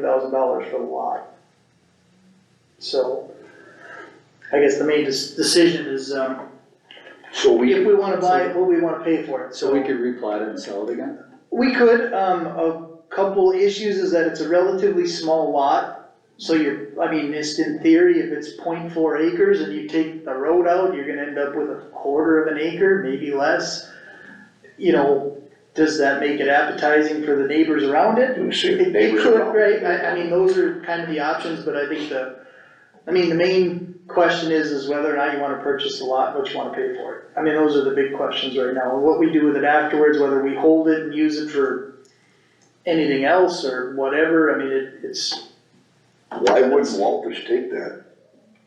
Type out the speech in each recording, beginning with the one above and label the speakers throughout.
Speaker 1: thousand dollars for the lot. So, I guess the main dis- decision is, um,
Speaker 2: So
Speaker 1: if
Speaker 2: we,
Speaker 1: we wanna buy it, what we wanna pay for it,
Speaker 2: so we could replat it and sell it again?
Speaker 1: We could, um, a couple issues is that it's a relatively small lot, so you're, I mean, just in theory, if it's 0.4 acres and you take the road out, you're gonna end up with a quarter of an acre, maybe less. You know, does that make it appetizing for the neighbors around it?
Speaker 2: We see
Speaker 1: It, it
Speaker 2: neighbors
Speaker 1: could,
Speaker 2: around.
Speaker 1: right, I, I mean, those are kind of the options, but I think the, I mean, the main question is, is whether or not you wanna purchase the lot, what you wanna pay for it. I mean, those are the big questions right now, and what we do with it afterwards, whether we hold it and use it for anything else or whatever, I mean, it, it's,
Speaker 3: Why wouldn't Walters take that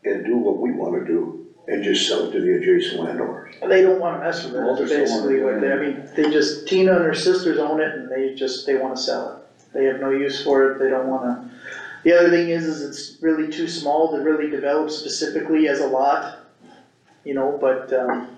Speaker 3: and do what we wanna do and just sell it to the adjacent landowners?
Speaker 1: they don't wanna mess with
Speaker 2: Well,
Speaker 1: it,
Speaker 2: there's no one
Speaker 1: basically, what they, I
Speaker 2: doing
Speaker 1: mean, they just, Tina and her sisters own it, and they just, they wanna sell it. They have no use for it, they don't wanna, the other thing is, is it's really too small to really develop specifically as a lot, you know, but, um,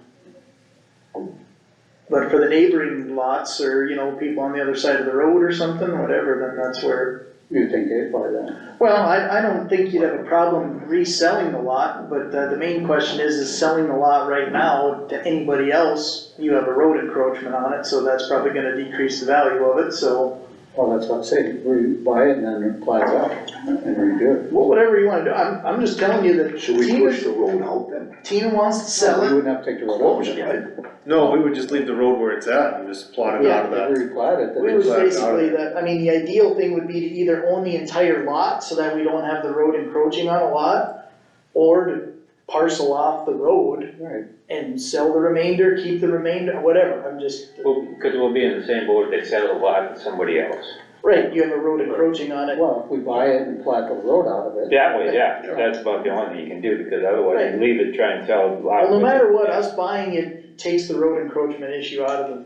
Speaker 1: but for the neighboring lots, or, you know, people on the other side of the road or something, whatever, then that's where
Speaker 2: You think they'd buy that?
Speaker 1: well, I, I don't think you'd have a problem reselling the lot, but uh, the main question is, is selling the lot right now to anybody else, you have a road encroachment on it, so that's probably gonna decrease the value of it, so.
Speaker 2: Well, Oh, that's what I'm saying, we buy it and then replat it out and redo it.
Speaker 1: Well, whatever you wanna do, I'm, I'm just telling you that
Speaker 3: So we push
Speaker 1: Tina,
Speaker 3: the road out then?
Speaker 1: Tina wants to sell
Speaker 2: We
Speaker 1: it,
Speaker 2: wouldn't have to take the road
Speaker 3: Close
Speaker 2: over.
Speaker 3: it, right?
Speaker 4: No, we would just leave the road where it's at and just plot it out of that.
Speaker 2: Replat it,
Speaker 1: we
Speaker 2: then
Speaker 1: was
Speaker 2: it's
Speaker 4: would-
Speaker 1: basically that, I mean, the ideal thing would be to either own the entire lot, so that we don't have the road encroaching on a lot, or to parcel off the road
Speaker 2: right.
Speaker 1: and sell the remainder, keep the remainder, whatever, I'm just.
Speaker 5: Well, because we'll be in the same boat, they sell the lot to somebody else.
Speaker 1: Right, you have a road encroaching on it.
Speaker 2: Well, if we buy it and plat the road out of it,
Speaker 5: That way, yeah, that's about the only thing you can do, because otherwise you leave it, try and sell the lot.
Speaker 1: Well, no matter what, us buying it takes the road encroachment issue out of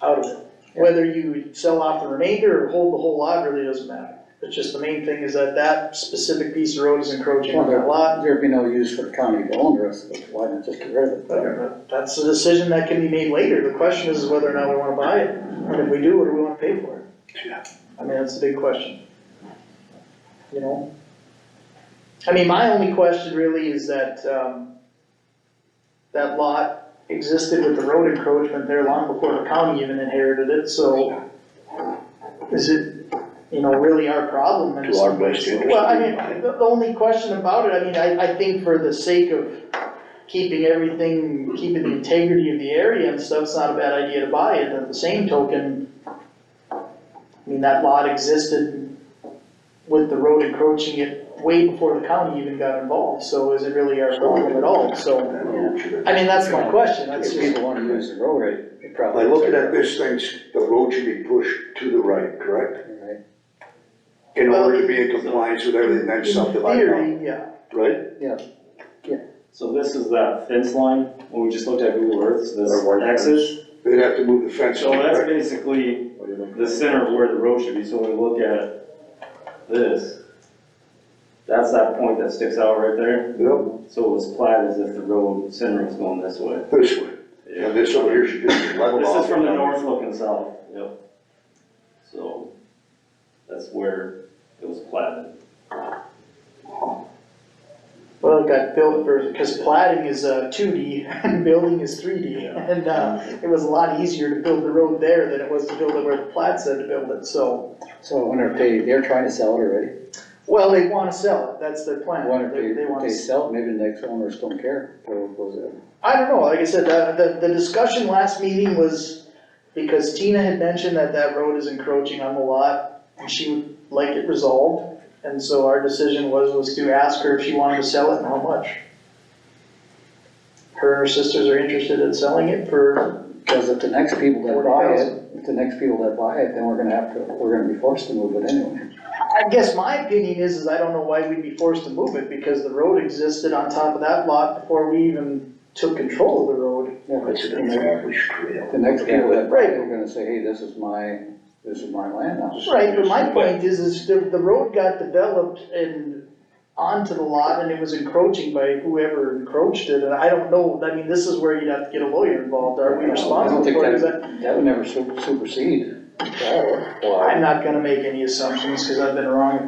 Speaker 1: the, out of it. Whether you sell off the remainder or hold the whole lot really doesn't matter. It's just the main thing is that that specific piece of road is encroaching on that lot.
Speaker 2: there'd be no use for the county to own the rest of it, why not just get rid of it?
Speaker 1: But That's a decision that can be made later. The question is whether or not we wanna buy it. And if we do, what do we wanna pay for it?
Speaker 3: Yeah.
Speaker 1: I mean, that's the big question. You know? I mean, my only question really is that, um, that lot existed with the road encroachment there long before the county even inherited it, so is it, you know, really our problem? in
Speaker 3: To our
Speaker 1: some ways?
Speaker 3: best interest.
Speaker 1: Well, I mean, the, the only question about it, I mean, I, I think for the sake of keeping everything, keeping the integrity of the area and stuff, it's not a bad idea to buy it, at the same token, I mean, that lot existed with the road encroaching it way before the county even got involved, so is it really our problem at all, so, I mean, that's my question, that's
Speaker 2: If
Speaker 1: just,
Speaker 2: people wanna use the road, right, they
Speaker 3: By
Speaker 2: probably.
Speaker 3: looking at this thing, the road should be pushed to the right, correct?
Speaker 2: Right.
Speaker 3: In order to be in compliance with everything that's
Speaker 1: in
Speaker 3: subdivided out,
Speaker 1: theory, yeah,
Speaker 3: right?
Speaker 6: So this is that fence line, when we just looked at Google Earth, so
Speaker 2: Or white
Speaker 6: this axis.
Speaker 3: They'd have to move the fence
Speaker 6: So
Speaker 3: line,
Speaker 6: that's
Speaker 3: right?
Speaker 6: basically the center of where the road should be, so when we look at this, that's that point that sticks out right there.
Speaker 3: Yep,
Speaker 6: So it was platted as if the road center was going this way.
Speaker 3: this way. And this over here should just be leveled off.
Speaker 6: This is from the north looking south, yep. So that's where it was platted.
Speaker 1: well, it got built for, cause plating is, uh, two D, and building is three D,
Speaker 6: Yeah.
Speaker 1: and, uh, it was a lot easier to build the road there than it was to build it where the plat said to build it, so.
Speaker 2: So I wonder if they, they're trying to sell it already,
Speaker 1: Well, they wanna sell it, that's their
Speaker 2: I
Speaker 1: plan,
Speaker 2: wonder
Speaker 1: they,
Speaker 2: if
Speaker 1: they
Speaker 2: they,
Speaker 1: wanna,
Speaker 2: they
Speaker 1: s-
Speaker 2: sell it, maybe the next owners don't care, or was it?
Speaker 1: I don't know, like I said, uh, the, the discussion last meeting was, because Tina had mentioned that that road is encroaching on the lot, and she would like it resolved, and so our decision was, was to ask her if she wanted to sell it and how much. Her and her sisters are interested in selling it for,
Speaker 2: Because if the next people that buy
Speaker 1: 40,000.
Speaker 2: it, if the next people that buy it, then we're gonna have to, we're gonna be forced to move it anyway.
Speaker 1: I guess my opinion is, is I don't know why we'd be forced to move it, because the road existed on top of that lot before we even took control of the road.
Speaker 3: It's an established trail.
Speaker 2: The next people that buy
Speaker 1: Right.
Speaker 2: it are gonna say, hey, this is my, this is my land now.
Speaker 1: Right, but my point is, is the, the road got developed and onto the lot and it was encroaching by whoever encroached it, and I don't know, I mean, this is where you'd have to get a lawyer involved, are we responsible
Speaker 2: I
Speaker 1: for it?
Speaker 2: don't
Speaker 1: Is that-
Speaker 2: think that, that would never su- supersede. that.
Speaker 1: I'm not gonna make any assumptions, cause I've been wrong